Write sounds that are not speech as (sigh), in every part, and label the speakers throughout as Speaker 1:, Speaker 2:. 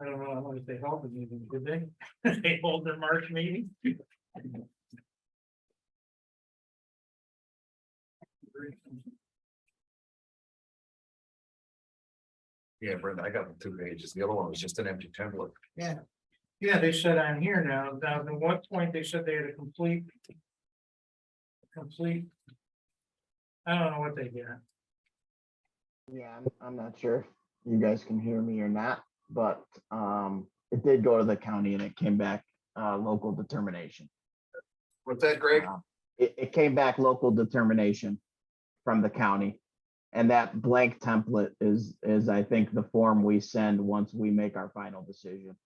Speaker 1: I don't know, I wonder if they held the meeting, did they? (laughs) They hold their March meeting?
Speaker 2: Yeah, Brenda, I got the two pages. The other one was just an empty template.
Speaker 1: Yeah, they said I'm here now, now at what point they said they had a complete. Complete. I don't know what they get,
Speaker 3: Yeah, I'm, I'm not sure if you guys can hear me or not, but, um, it did go to the county and it came back, uh, local determination.
Speaker 2: What's that, Greg?
Speaker 3: Um, It, it came back local determination from the county. And that blank template is, is I think the form we send once we make our final decision.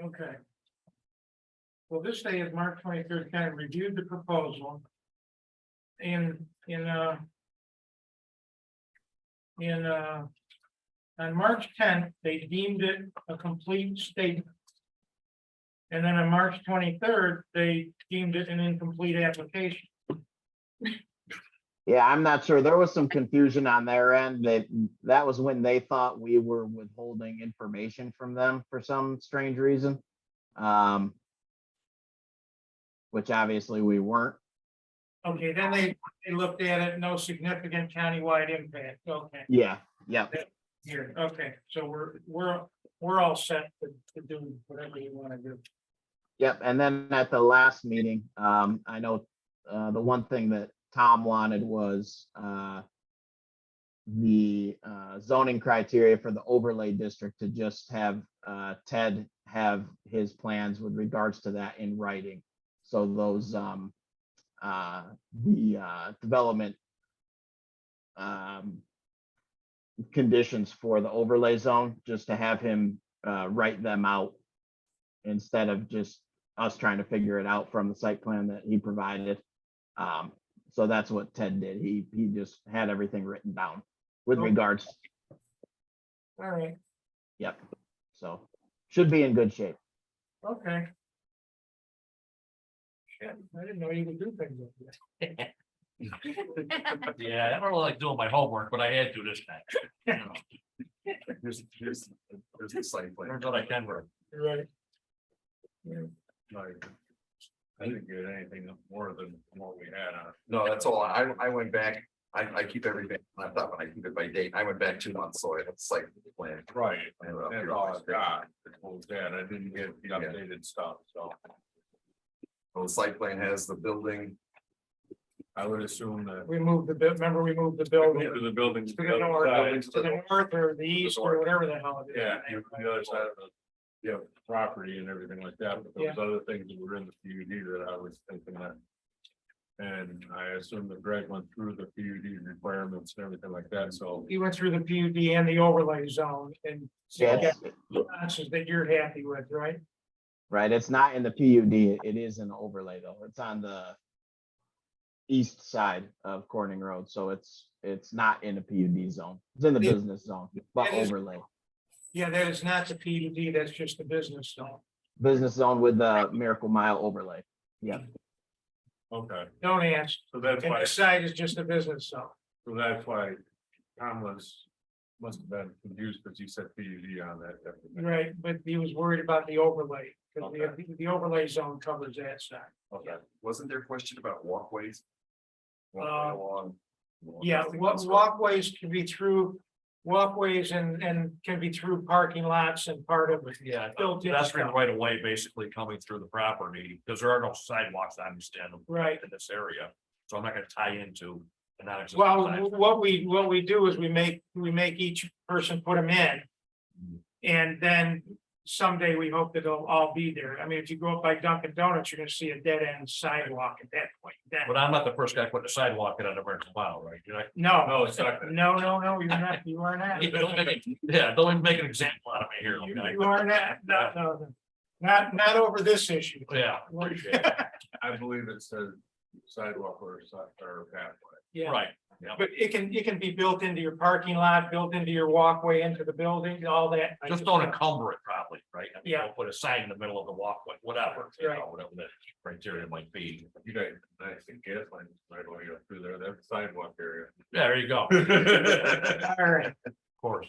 Speaker 1: okay. Well, this day is March twenty-third, kind of reviewed the proposal. In, in, uh. In, uh. On March tenth, they deemed it a complete statement. And then on March twenty-third, they deemed it an incomplete application.
Speaker 3: Yeah, I'm not sure. There was some confusion on their end. That, mm, that was when they thought we were withholding information from them for some strange reason. Um, which obviously we weren't.
Speaker 1: Okay, then they, they looked at it, no significant countywide impact, okay,
Speaker 3: Yeah, yeah.
Speaker 1: here, okay, so we're, we're, we're all set to, to do whatever you wanna do.
Speaker 3: Yep, and then at the last meeting, um, I know, uh, the one thing that Tom wanted was, uh. The, uh, zoning criteria for the overlay district to just have, uh, Ted have his plans with regards to that in writing. So those, um, uh, the, uh, development. Um. Conditions for the overlay zone, just to have him, uh, write them out instead of just us trying to figure it out from the site plan that he provided. Um, so that's what Ted did. He, he just had everything written down with
Speaker 1: Okay.
Speaker 3: regards,
Speaker 1: All right,
Speaker 3: yep. So should be in good shape.
Speaker 1: okay. Shit, I didn't know you could do things like that.
Speaker 4: Yeah, I don't like doing my homework, but I had to this time.
Speaker 2: (laughs) Here's, here's, here's the site plan.
Speaker 4: Turns out I can work.
Speaker 1: You're Right.
Speaker 2: Like, I didn't get anything more than what we had on. No, that's all. I, I went back, I, I keep everything on top and I keep it by date. I went back two months, so it's like. Right,
Speaker 5: That's all I got. oh, It was that. I didn't get the updated stuff, so
Speaker 2: The site plan has the building.
Speaker 5: I would assume that.
Speaker 1: We moved the, bu- remember we moved the building
Speaker 5: The buildings.
Speaker 1: to the north, to the north or the east or whatever the hell it is.
Speaker 5: Yeah, you- the other side of the, yeah, property and everything like that, but there was other things that were in the PUD that I was thinking that. And I assume that Greg went through the PUD requirements and everything like that, so.
Speaker 1: You went through the PUD and the overlay zone and
Speaker 3: Yeah,
Speaker 1: got responses that you're happy with, right?
Speaker 3: right. It's not in the PUD. It is an overlay though. It's on the east side of Corning Road, so it's, it's not in the PUD zone. It's in the
Speaker 1: Yeah.
Speaker 3: business zone, but
Speaker 1: It is-
Speaker 3: overlay.
Speaker 1: Yeah, that is not the PUD, that's just the business zone.
Speaker 3: Business zone with the Miracle Mile overlay.
Speaker 5: Okay,
Speaker 1: Don't ask,
Speaker 5: so that's
Speaker 1: and
Speaker 5: why,
Speaker 1: the site is just a business zone.
Speaker 5: so that's why Tom was, must have been confused, because you said PUD on that. definitely.
Speaker 1: Right, but he was worried about the overlay, because
Speaker 5: Okay.
Speaker 1: the, the overlay zone covers that side.
Speaker 5: Okay.
Speaker 2: Wasn't there a question about walkways?
Speaker 4: Um,
Speaker 1: Uh,
Speaker 2: Along-
Speaker 1: Yeah, wa- walkways can be through, walkways and, and can be through parking lots and part of it.
Speaker 4: Yeah,
Speaker 1: Built in
Speaker 4: pedestrian
Speaker 1: stuff.
Speaker 4: right away, basically coming through the property, because there are no sidewalks, I understand,
Speaker 1: Right,
Speaker 4: in this area. So I'm not gonna tie into. a non-existent
Speaker 1: well,
Speaker 4: sidewalk.
Speaker 1: what we, what we do is we make, we make each person put them in.
Speaker 4: Mm.
Speaker 1: And then someday we hope that they'll all be there. I mean, if you go up by Dunkin' Donuts, you're gonna see a dead end sidewalk at that point, then.
Speaker 4: But I'm not the first guy putting a sidewalk in on a rental mile, right? You're not-
Speaker 1: No.
Speaker 4: No, it's not.
Speaker 1: (laughs) No, no, no, you're not, you are not.
Speaker 4: Yeah, (laughs) don't make it- Yeah, don't even make an example out of me here.
Speaker 1: You
Speaker 4: okay?
Speaker 1: you are not, no, no, no. Not, not over this issue.
Speaker 4: Yeah, appreciate it.
Speaker 5: I believe it says sidewalk or side or pathway.
Speaker 1: Yeah,
Speaker 4: Right,
Speaker 1: but it can, it can be built into your parking lot, built into your walkway, into the building, all that.
Speaker 4: just don't encumber it probably, right? I mean,
Speaker 1: Yeah.
Speaker 4: don't Put a sign in the middle of the walkway, whatever, you
Speaker 1: Right.
Speaker 4: know, whatever the criteria might be.
Speaker 5: You guys, nice and gas line, right away up through there, that sidewalk area.
Speaker 4: Yeah, There you go.
Speaker 1: All right,
Speaker 4: Of course.